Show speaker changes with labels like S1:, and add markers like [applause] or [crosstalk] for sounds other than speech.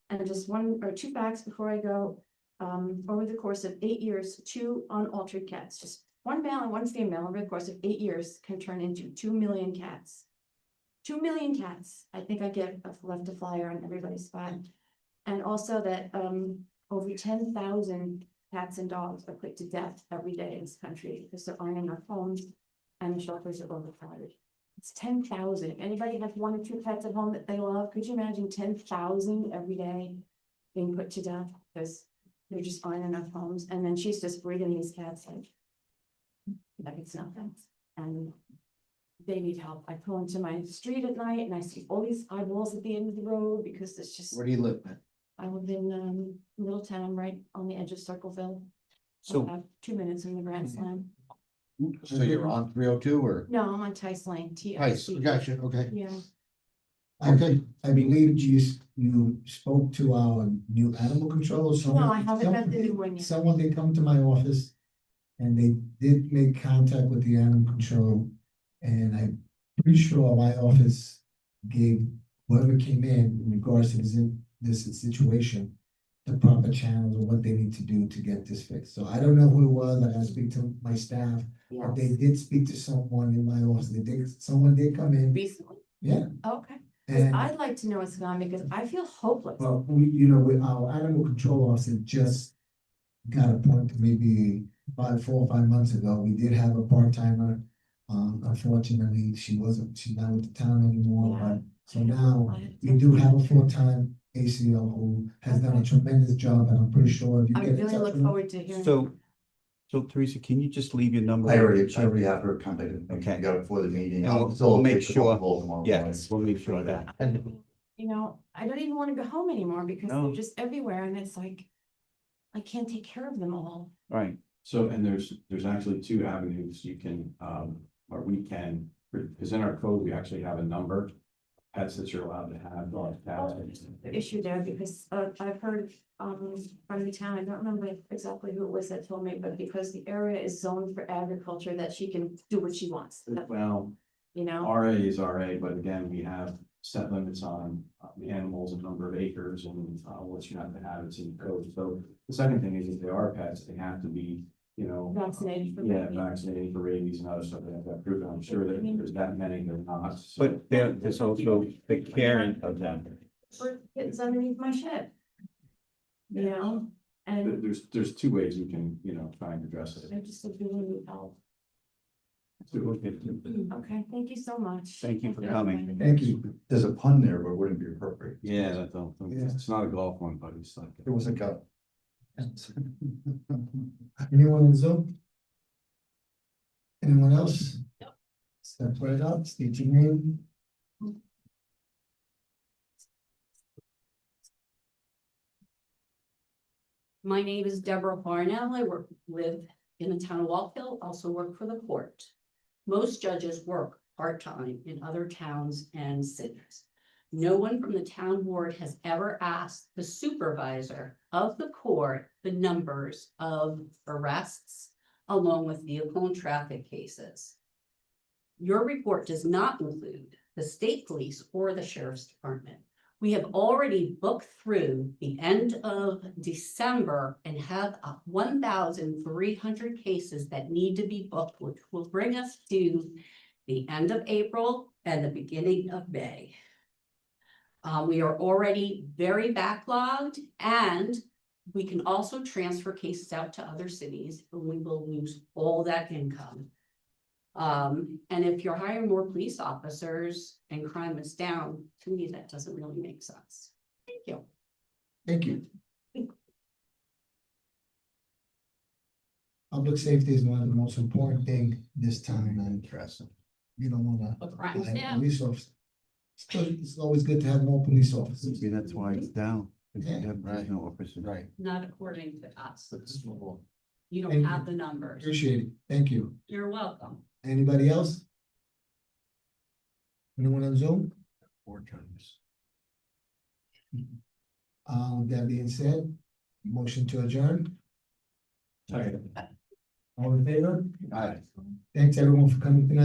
S1: And just one or two facts before I go. Um, over the course of eight years, two unaltered cats, just one male and one female, over the course of eight years can turn into two million cats. Two million cats. I think I get I've left a flyer on everybody's spot. And also that um over ten thousand cats and dogs are put to death every day in this country because there aren't enough homes and the shelters are overcrowded. It's ten thousand. Anybody has one or two pets at home that they love, could you imagine ten thousand every day being put to death because there just aren't enough homes? And then she's just breeding these cats like like it's nothing. And they need help. I pull into my street at night and I see all these eyeballs at the end of the road because it's just.
S2: Where do you live, man?
S1: I live in um Middletown, right on the edge of Circleville.
S3: So,
S1: About Two minutes from the Grand
S3: Mhm.
S1: Slam.
S2: So
S4: Mm-hmm.
S2: you're on three oh two or?
S1: No, I'm on Tice Lane, T I
S2: Nice,
S1: C.
S2: gotcha, okay.
S1: Yeah,
S3: okay, I believe you, s- you spoke to our new animal controller, someone.
S1: no, I haven't met the new one yet.
S3: Someone, they come to my office and they did make contact with the animal control. And I'm pretty sure my office gave whoever came in in regards to this, in- this situation, the proper channels or what they need to do to get this fixed. So I don't know who it was. I gotta speak to my staff. But they
S1: Yes.
S3: did speak to someone in my office. They did, someone did come in
S1: Recently?
S3: Yeah.
S1: Okay, 'Cause
S3: and.
S1: I'd like to know what's going on because I feel hopeless.
S3: Well, we, you know, with our animal control officer just got appointed maybe five, four or five months ago. We did have a part timer. Um, unfortunately, she wasn't, she's not with the town anymore,
S1: Yeah.
S3: but so now
S1: I-
S3: we do have a full time ACO who has done a
S1: Okay.
S3: tremendous job and I'm pretty sure if you
S1: I
S3: get in
S1: really
S3: touch
S1: look
S3: with her.
S1: forward to hearing.
S5: So, so Teresa, can you just leave your number?
S2: I already, I already have her contacted. me.
S5: Okay.
S2: We Got it for the meeting.
S5: And we'll-
S2: I'll still
S5: we'll make
S2: take the
S5: sure-
S2: call tomorrow morning.
S5: Yes, we'll make sure of that.
S1: I mean, You know, I don't even wanna go home anymore because they're
S5: No.
S1: just everywhere and it's like, I can't take care of them all.
S5: Right,
S4: So, and there's, there's actually two avenues you can, um, or we can, because in our code, we actually have a number. of Pets that you're allowed to have, dogs, cats.
S1: Oh, the issue there because uh I've heard um from the town, I don't remember exactly who it was that told me, but because the area is zoned for agriculture, that she can do what she wants,
S4: Well,
S1: you know?
S4: RA is RA, but again, we have set limits on uh, the animals, and number of acres and uh, what you have to have, it's in the code. So the second thing is if they are pets, they have to be, you know.
S1: Vaccinated for
S4: Yeah,
S1: rabies.
S4: vaccinated for rabies and other stuff that have proven. I'm sure that there's that many that are not. so-
S5: but there, there's also the caring of them.
S1: For kittens underneath my shed. You know,
S4: There-
S1: and
S4: There's, there's two ways you can, you know, try and address it.
S1: I just would really need help. Okay, thank you so much.
S5: Thank you for
S1: everybody.
S5: coming.
S3: Thank you.
S2: There's a pun there, but it wouldn't be appropriate.
S4: Yeah, that's all.
S3: Yeah.
S4: It's not a golf one, but it's like.
S2: It was a go.
S3: [laughs] Anyone on Zoom? Anyone else? Step right up, state your name.
S6: My name is Deborah Harnell. I work, live in the town of Walkville, also work for the court. Most judges work part-time in other towns and cities. No one from the town board has ever asked the supervisor of the court the numbers of arrests along with vehicle and traffic cases. Your report does not include the state police or the sheriff's department. We have already booked through the end of December and have uh, one thousand three hundred cases that need to be booked, which will bring us to the end of April and the beginning of May. Uh, we are already very backlogged and we can also transfer cases out to other cities. and We will lose all that income. Um, and if you're hiring more police officers and crime is down, to me, that doesn't really make sense. Thank you.
S3: Thank you. Public safety is one of the most important thing this time and
S2: Interesting.
S3: you don't wanna.
S6: But crime is
S3: like,
S6: down.
S3: Police officers. It's good- It's always good to have more police officers.
S5: See, that's why it's down. If you have
S2: Right.
S5: no officers.
S2: Right.
S6: Not according to us.
S2: Thank
S6: You
S3: Thank
S6: don't
S3: you.
S6: have the numbers.
S3: Appreciate it. Thank you.
S6: You're welcome.
S3: Anybody else? Anyone on Zoom? Uh, with that being said, motion to adjourn, all in favor?
S2: Aye.
S3: Thanks everyone for coming tonight.